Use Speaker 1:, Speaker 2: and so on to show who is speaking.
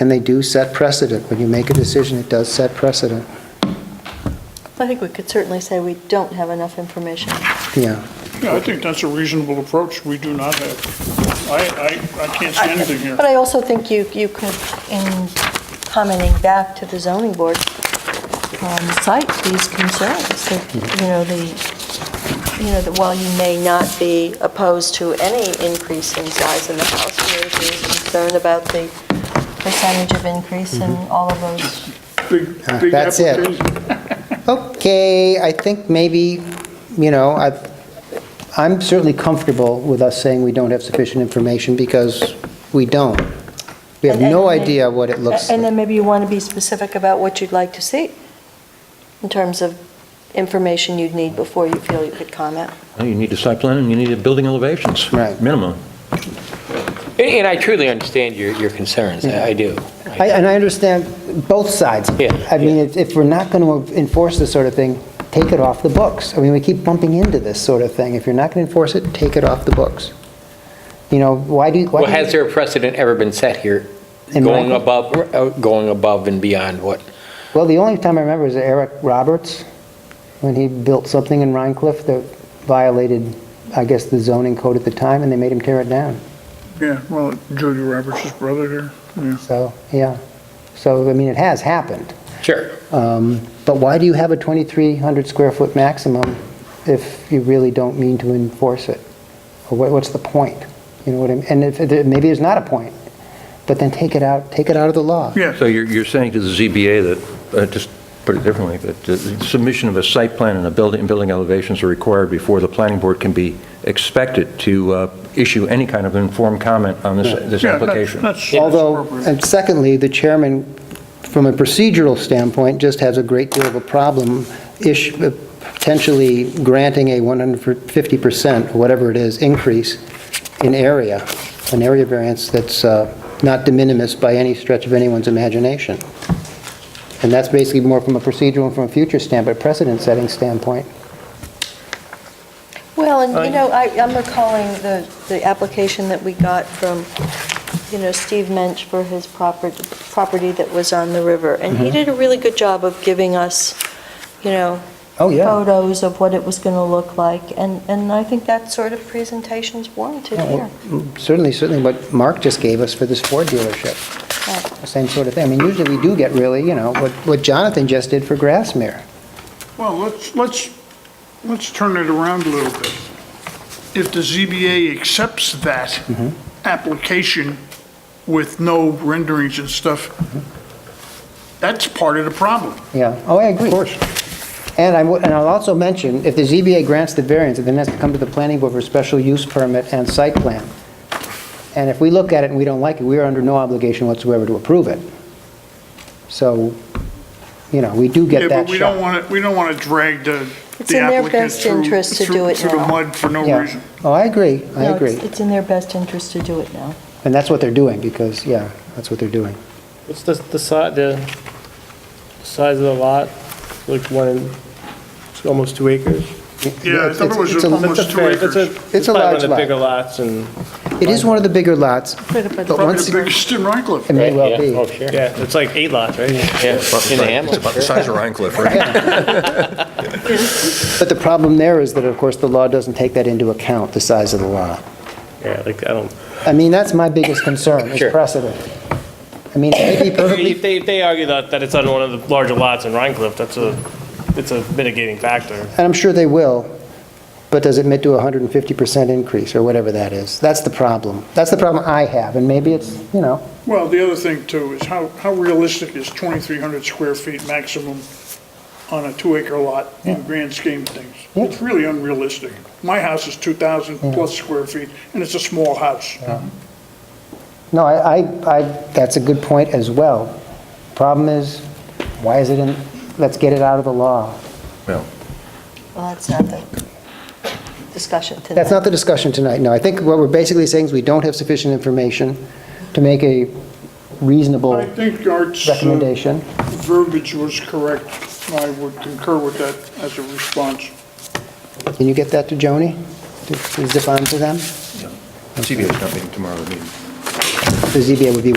Speaker 1: And they do set precedent. When you make a decision, it does set precedent.
Speaker 2: I think we could certainly say we don't have enough information.
Speaker 1: Yeah.
Speaker 3: Yeah, I think that's a reasonable approach. We do not have, I, I, I can't see anything here.
Speaker 2: But I also think you, you could, in commenting back to the zoning board, um, cite these concerns, that, you know, the, you know, that while you may not be opposed to any increase in size in the house, there is concern about the percentage of increase and all of those.
Speaker 3: Big,
Speaker 1: Uh,
Speaker 3: big
Speaker 1: that's it.
Speaker 3: application.
Speaker 1: Okay, I think maybe, you know, I, I'm certainly comfortable with us saying we don't have sufficient information because we don't. We have
Speaker 2: And-
Speaker 1: no
Speaker 2: and-
Speaker 1: idea what it looks
Speaker 2: And
Speaker 1: like.
Speaker 2: then maybe you want to be specific about what you'd like to see, in terms of information you'd need before you feel you could comment.
Speaker 4: No, You need a site plan, and you need a building elevations.
Speaker 1: Right.
Speaker 4: Minimum.
Speaker 5: And- And I truly understand your, your concerns, I I do.
Speaker 1: I- And I understand both sides.
Speaker 5: Yeah,
Speaker 1: I mean, if if we're not going to enforce this sort of thing, take it off the books. I mean, we keep bumping into this sort of thing. If you're not going to enforce it, take it off the books. You know, why do, why
Speaker 5: Well,
Speaker 1: do-
Speaker 5: has there a precedent ever been set here,
Speaker 1: In
Speaker 5: going
Speaker 1: Michael?
Speaker 5: above, uh, going above and beyond what?
Speaker 1: Well, the only time I remember is Eric Roberts, when he built something in Rhine Cliff that violated, I guess, the zoning code at the time, and they made him tear it down.
Speaker 3: Yeah, well, Judy Roberts' brother there.
Speaker 1: So, yeah. So, I mean, it has happened.
Speaker 5: Sure.
Speaker 1: Um, But why do you have a 2,300 square foot maximum if you really don't mean to enforce it? Or what- what's the point? You know what I mean? And if, maybe there's not a point, but then take it out, take it out of the law.
Speaker 3: Yes,
Speaker 4: So you're, you're saying to the ZBA that, uh, just put it differently, that the submission of a site plan and a building, and building elevations are required before the planning board can be expected to uh, issue any kind of informed comment on this, this
Speaker 3: yeah, that-
Speaker 4: application?
Speaker 3: that's that's
Speaker 1: Although,
Speaker 3: appropriate.
Speaker 1: and secondly, the chairman, from a procedural standpoint, just has a great deal of a problem ish, uh, potentially granting a 150%, or whatever it is, increase in area, an area variance that's uh, not de minimis by any stretch of anyone's imagination. And that's basically more from a procedural and from a future standpoint, precedent-setting standpoint.
Speaker 2: Well, and, you know, I, I'm recalling the, the application that we got from, you know, Steve Mensch for his property, property that was on the river, and
Speaker 1: Mm-hmm.
Speaker 2: he did a really good job of giving us, you know,
Speaker 1: Oh,
Speaker 2: photos of what it was going to look like, and, and I think that sort of presentation's warranted
Speaker 1: Yeah, well,
Speaker 2: here.
Speaker 1: Certainly, certainly what Mark just gave us for this Ford dealership.
Speaker 2: Right.
Speaker 1: The Same sort of thing. I mean, usually we do get really, you know, what what Jonathan just did for Grassmere.
Speaker 3: Well, let's, let's, let's turn it around a little bit. If the ZBA accepts that
Speaker 1: Mm-hmm.
Speaker 3: application with no renderings and stuff,
Speaker 1: Mm-hmm.
Speaker 3: that's part of the problem.
Speaker 1: Yeah, oh, I agree. Of course. And I would, and I'll also mention, if the ZBA grants the variance, it then has to come to the planning board for special use permit and site plan. And if we look at it and we don't like it, we are under no obligation whatsoever to approve it. So, you know, we do
Speaker 3: Yeah,
Speaker 1: get that
Speaker 3: but we don't
Speaker 1: shot.
Speaker 3: want to, we don't want to drag the
Speaker 2: It's
Speaker 3: the
Speaker 2: in their
Speaker 3: applicant
Speaker 2: best
Speaker 3: through-
Speaker 2: interest to
Speaker 3: through-
Speaker 2: do it
Speaker 3: Through the
Speaker 2: now.
Speaker 3: mud for no
Speaker 1: Yeah.
Speaker 3: reason.
Speaker 1: Oh, I agree, I
Speaker 2: No,
Speaker 1: agree.
Speaker 2: it's- It's in their best interest to do it now.
Speaker 1: And that's what they're doing, because, yeah, that's what they're doing.
Speaker 6: What's the, the size, the size of the lot? Like one, it's almost two acres?
Speaker 3: Yeah, I
Speaker 1: It's-
Speaker 3: thought it
Speaker 1: it's
Speaker 3: was
Speaker 1: a-
Speaker 3: almost
Speaker 6: That's a
Speaker 3: two
Speaker 6: fair- that's a-
Speaker 3: acres.
Speaker 1: It's a
Speaker 6: probably
Speaker 1: large
Speaker 6: One of
Speaker 1: lot.
Speaker 6: the bigger lots and,
Speaker 1: It is one of the bigger lots, but
Speaker 3: Probably the
Speaker 1: once, it
Speaker 3: biggest in Rhine Cliff.
Speaker 1: may well
Speaker 5: Yeah,
Speaker 1: be.
Speaker 5: Oh, sure.
Speaker 6: yeah, it's like eight lots, right?
Speaker 5: Yeah, in the Hamlet,
Speaker 4: About the
Speaker 5: sure.
Speaker 4: size of Rhine Cliff, right?
Speaker 1: But the problem there is that, of course, the law doesn't take that into account, the size of the lot.
Speaker 6: Yeah, like, I don't,
Speaker 1: I mean, that's my biggest concern, is
Speaker 5: Sure.
Speaker 1: precedent. I mean, it may be
Speaker 6: if
Speaker 1: perfectly,
Speaker 6: they, if they argue that, that it's on one of the larger lots in Rhine Cliff, that's a, it's a mitigating factor.
Speaker 1: and I'm sure they will, but does it do a 150% increase, or whatever that is? That's the problem. That's the problem I have, and maybe it's, you know,
Speaker 3: Well, the other thing too is how, how realistic is 2,300 square feet maximum on a two-acre lot in grand scheme of things?
Speaker 1: Yeah.
Speaker 3: It's really unrealistic. My house is 2,000 plus square feet, and it's a small house.
Speaker 1: no, I, I, I that's a good point as well. Problem is, why is it in, let's get it out of the law.
Speaker 2: Well, that's not the discussion today.
Speaker 1: That's not the discussion tonight, no. I think what we're basically saying is we don't have sufficient information to make a
Speaker 3: I
Speaker 1: reasonable
Speaker 3: think Art's uh,
Speaker 1: recommendation.
Speaker 3: verbiage was correct. I would concur with that as a response.
Speaker 1: Can you get that to Joni? To to zip on to them?
Speaker 4: ZBA's not meeting tomorrow, they're meeting
Speaker 1: The ZBA would be